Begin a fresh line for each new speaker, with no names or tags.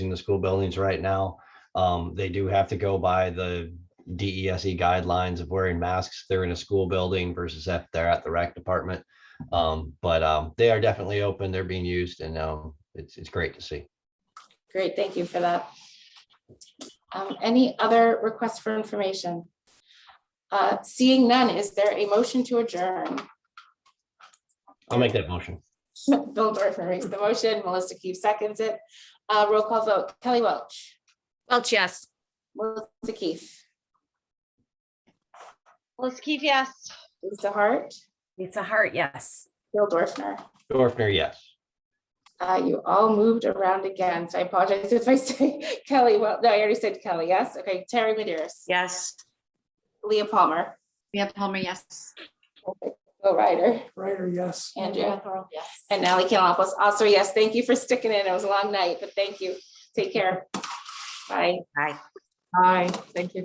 using the school buildings right now. Um, they do have to go by the DESE E guidelines of wearing masks. if They're in a school building versus if they're at the rec department. Um, but, um, they are definitely open. They're being used and, um, it's, it's great to see.
Great, thank you for that. Um, Any other requests for information? Uh, Seeing none, is there a motion to adjourn?
I'll make that motion.
Bill Dorfman makes the motion, Melissa Keefe seconds it. Uh, Roll call vote, Kelly Welch,
Welch, yes.
Melissa Keefe,
Let's keep yes.
Lisa Hart,
Lisa Hart, yes.
Bill Dorfner.
Dorfner, yes.
Uh, You all moved around again, so I apologize if I say Kelly, well, no, I already said Kelly, yes? Okay, Terry Medeas.
Yes.
Leah Palmer,
Leah Palmer, yes.
Bill Ryder,
Ryder, yes.
Andrea.
Thorold, yes.
And Ally Cantalopoulos, also yes, thank you for sticking in. It was a long night, but thank you. Take care. Bye.
Bye.
Bye. Thank you.